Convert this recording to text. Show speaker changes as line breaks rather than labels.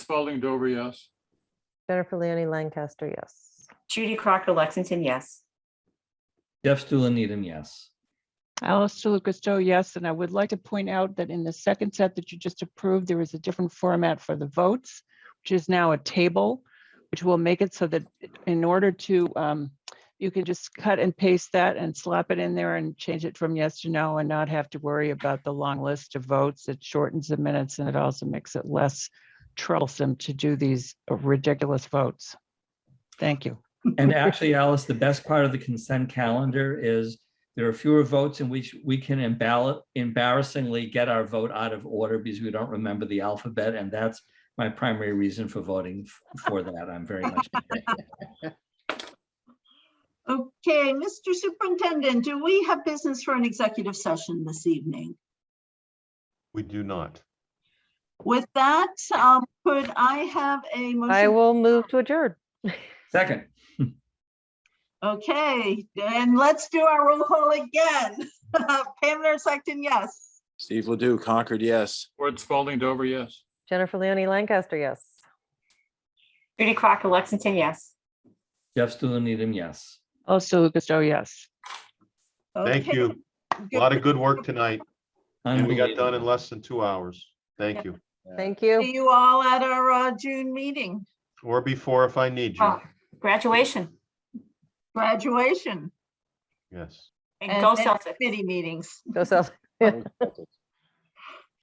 Spalding Dover, yes.
Jennifer Leonie Lancaster, yes.
Judy Crocker Lexington, yes.
Jeff Stuland Needham, yes.
Alice DeLucasto, yes, and I would like to point out that in the second set that you just approved, there is a different format for the votes, which is now a table, which will make it so that in order to, um, you can just cut and paste that and slap it in there and change it from yes to no and not have to worry about the long list of votes. It shortens the minutes and it also makes it less troublesome to do these ridiculous votes. Thank you.
And actually, Alice, the best part of the consent calendar is there are fewer votes in which we can emball- embarrassingly get our vote out of order because we don't remember the alphabet. And that's my primary reason for voting f- for that. I'm very much.
Okay, Mr. Superintendent, do we have business for an executive session this evening?
We do not.
With that, um, could I have a
I
motion?
will move to adjourn.
Second,
Okay, and let's do our roll call again. Pam Nair Sexton, yes.
Steve Ledoux, Concord, yes.
Ward Spalding Dover, yes.
Jennifer Leonie Lancaster, yes.
Judy Crocker Lexington, yes.
Jeff Stuland Needham, yes.
Alice DeLucasto, yes.
Thank
Okay,
you. A lot of good work tonight, and we got done in
Unbelievable.
less than two hours. Thank you.
Thank
See
you.
you all at our uh, June meeting,
Or before if I need you.
Oh, Graduation
graduation
Yes.
and
And-
go
and
Celtic.
committee meetings.
Go Celtics.